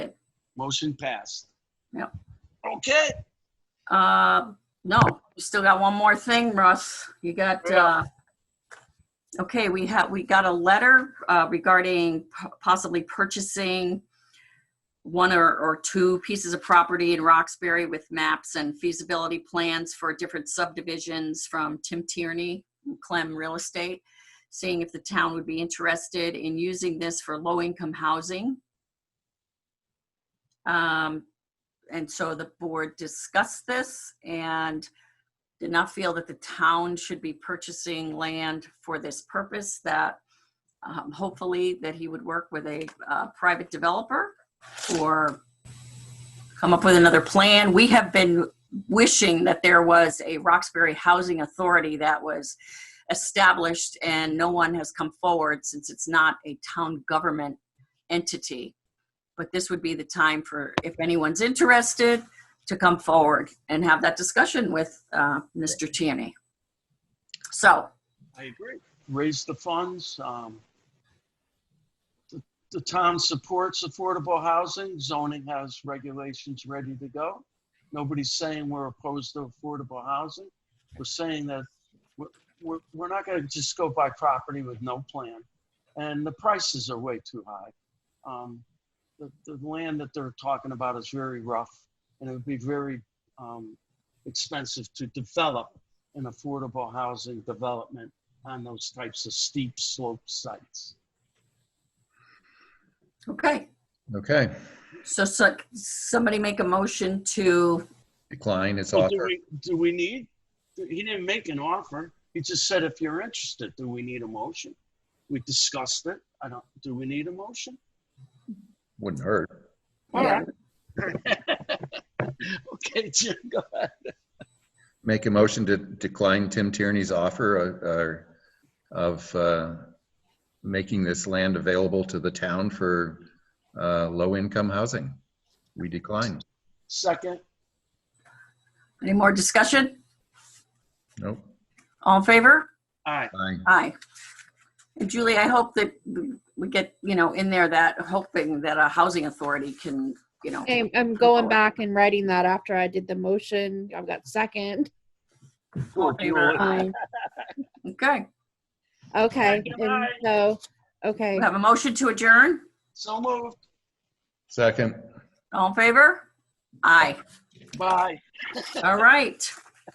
Motion passed. Yep. Okay, Uh, No, we still got one more thing, Russ. You got, uh, okay, we have, we got a letter uh, regarding p- possibly purchasing one or, or two pieces of property in Roxbury with maps and feasibility plans for different subdivisions from Tim Tierney, Clem Real Estate, seeing if the town would be interested in using this for low-income housing. Um, and so the board discussed this and did not feel that the town should be purchasing land for this purpose, that um, hopefully that he would work with a uh, private developer or come up with another plan. We have been wishing that there was a Roxbury Housing Authority that was established and no one has come forward since it's not a town government entity but this would be the time for, if anyone's interested, to come forward and have that discussion with uh, Mr. Tierney. So, I agree. Raise the funds. um, the- The town supports affordable housing. Zoning has regulations ready to go. Nobody's saying we're opposed to affordable housing. We're saying that we're, we're, we're not gonna just go buy property with no plan. And the prices are way too high. Um, The, the land that they're talking about is very rough and it would be very um, expensive to develop an affordable housing development on those types of steep slope sites. okay, Okay, so, so somebody make a motion to, decline its Well, Do offer. we, do we need, he didn't make an offer. He just said, if you're interested, do we need a motion? We discussed it. I don't, do we need a motion? Wouldn't hurt. All Yeah. right. Okay, Jim, go ahead. Make a motion to decline Tim Tierney's offer of- uh, of uh, making this land available to the town for uh, low-income housing. We decline. Second, any more discussion? Nope. All in favor? aye, Aye. Aye. And Julie, I hope that we get, you know, in there that, hoping that a housing authority can, you know, I'm, I'm going back and writing that after I did the motion. I've got second. Cool, Julie. Um, okay. okay. Second, And aye. so, okay. We have a motion to adjourn? So moved, Second. All in favor? Aye. bye. All right.